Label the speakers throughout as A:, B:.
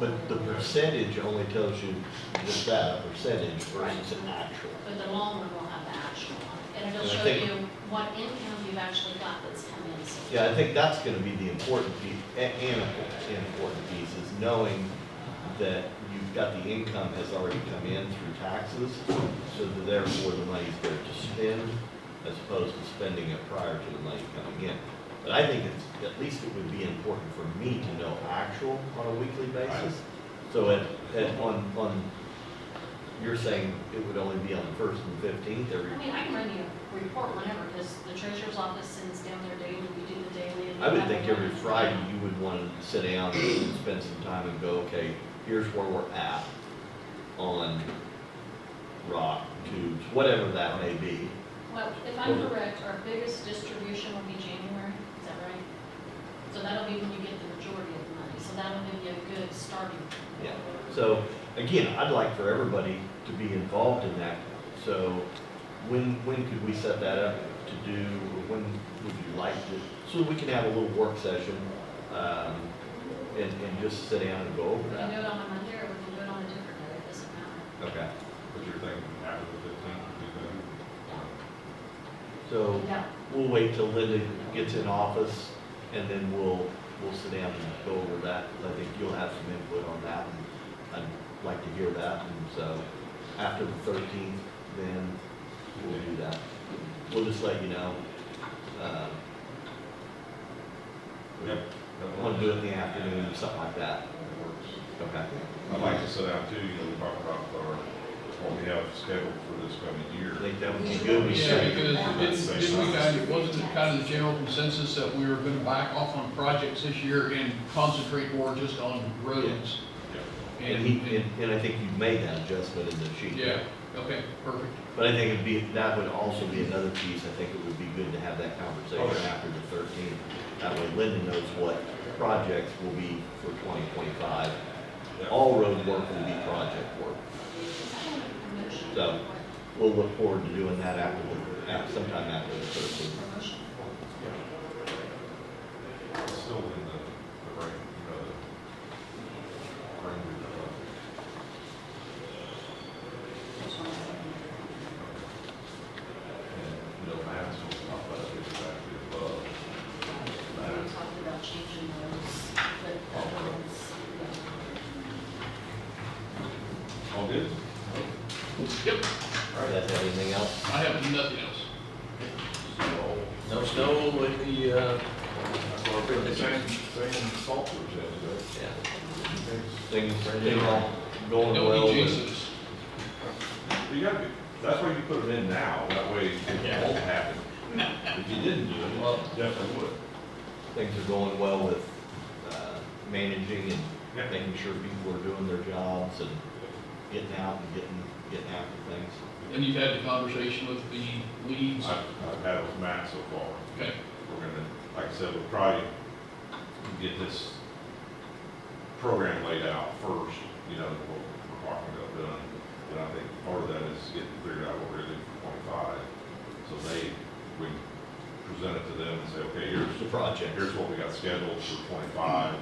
A: But the percentage only tells you just that, a percentage versus an actual.
B: But the long run will have the actual one, and it'll
A: And I
B: show
A: think-
B: you what income you've actually got that's come in. so
A: Yeah, I think that's gonna be the important piece, a- an an important piece, is knowing that you've got the income has already come in through taxes, so that therefore the money's there to spend, as opposed to spending it prior to the money coming in. But I think it's, at least it would be important for me to know actual on a weekly basis. So at, at, on, on, you're saying it would only be on the first and fifteenth every,
B: I mean, I can run you a report whenever, because the treasurer's office sends down their daily, we do the daily. and
A: I would
B: we
A: think
B: have
A: every
B: one.
A: Friday you would want to sit down and spend some time and go, okay, here's where we're at on rock, tubes, whatever that may be.
B: Well, if I'm correct, our biggest distribution will be January, is that right? So that'll be when you get the majority of the money, so that'll give you a good starting. point.
A: Yeah. So again, I'd like for everybody to be involved in that. So when, when could we set that up to do, or when would you like to, so we can have a little work session, um, and, and just sit down and go over
B: We can do
A: that?
B: it on a Monday, or we can do it on a different day, it doesn't matter.
A: Okay,
C: But you're thinking after the fifteenth would be the,
A: so.
B: Yeah,
A: We'll wait till Linda gets in office, and then we'll, we'll sit down and go over that, because I think you'll have some input on that, and I'd like to hear that, and so, after the thirteenth, then we'll do that. We'll just let you know. um,
C: yep.
A: we
C: Um, that
A: Want to do
C: works.
A: it in the afternoon, or something like that.
C: That works.
A: Okay.
C: I'd like to sit down too, you know, talk about our, what we have scheduled for this coming year.
A: I think that would be good. We
D: Yeah,
A: should.
D: because didn't, didn't we kind of, wasn't it kind of the general consensus that we were gonna back off on projects this year and concentrate more just on roads?
C: Yeah.
A: And he, and, and I think you made that adjustment in the sheet.
D: Yeah, okay, perfect.
A: But I think it'd be, that would also be another piece, I think it would be good to have that conversation
C: Okay.
A: after the thirteenth. That way Linda knows what projects will be for twenty twenty-five. All road work will be project work.
B: Is that one a promotion?
A: So- We'll look forward to doing that after, the- af- sometime after the thirteenth.
B: Promotion.
C: It's Still in the, the range, you know, the range of, uh, and, you know, that's what we're talking about, it's actually above.
B: We talked about changing those, but that one's,
C: All good?
D: Yep,
A: Does that have anything else?
D: I have nothing else.
E: No snow with the, uh,
C: That's what I feel, the same, same salt we're saying,
A: Yeah.
C: but.
A: Things, things all going well. uh,
D: Don't
C: E
D: be
A: and-
D: Jesus.
C: You gotta be, that's why you put them in now, that way it won't happen. If you didn't do it,
E: Well-
C: it definitely would.
A: Things are going well with, uh, managing
C: Yeah.
A: and making sure people are doing their jobs and getting out and getting, getting after things.
D: And you've had the conversation with the leads,
C: I've, I've had it with Matt so far.
D: okay,
C: We're gonna, like I said, we'll probably get this program laid out first, you know, what we're talking about done. And I think part of that is getting figured out what we're gonna do for twenty-five. So they, we present it to them and say, okay, here's,
A: The project.
C: here's what we got scheduled for twenty-five.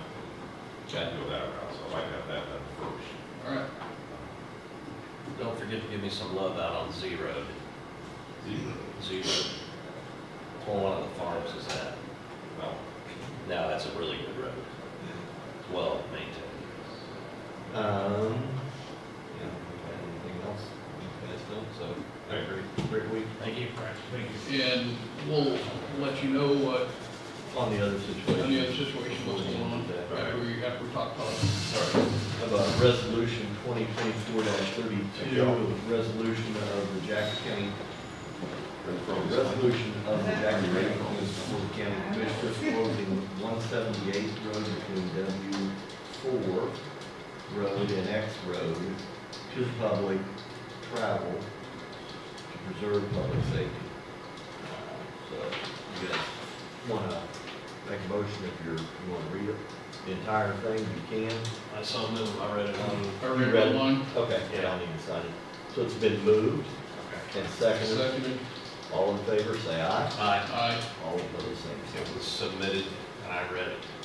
A: Okay.
C: Go that route, so I'd like to have that done first.
D: all right.
E: don't forget to give me some love out on Z Road.
C: Zero.
E: Z Road. Well, one of the farms is that.
C: No,
E: Now, that's a really good road. Well maintained.
A: Um, yeah, anything else? You guys don't, so, have a great, great week
E: Thank you, Frank. Thank you.
D: And we'll let you know what,
A: on the other situation.
D: any other situation was going on after we, after we talk policy.
A: Sorry, about resolution twenty twenty-four
C: Thank
A: thirty-two,
C: you all.
A: resolution of the Jackson County,
C: From
A: resolution of the Jackson County Board of County Commissioners closing one seventy-eighth road between W four road and X road to the public travel to preserve public safety. Uh, So, you guys wanna make a motion if you're, you wanna read it, the entire thing, you can.
E: I saw them, I read it on.
D: I
A: You
D: read
A: read it?
D: that line,
A: Okay, yeah, I'll need to sign it. So it's been moved and seconded.
D: seconded,
A: All in favor, say aye.
E: Aye.
D: aye.
A: All opposed, same sign.
E: It was submitted, and I read it.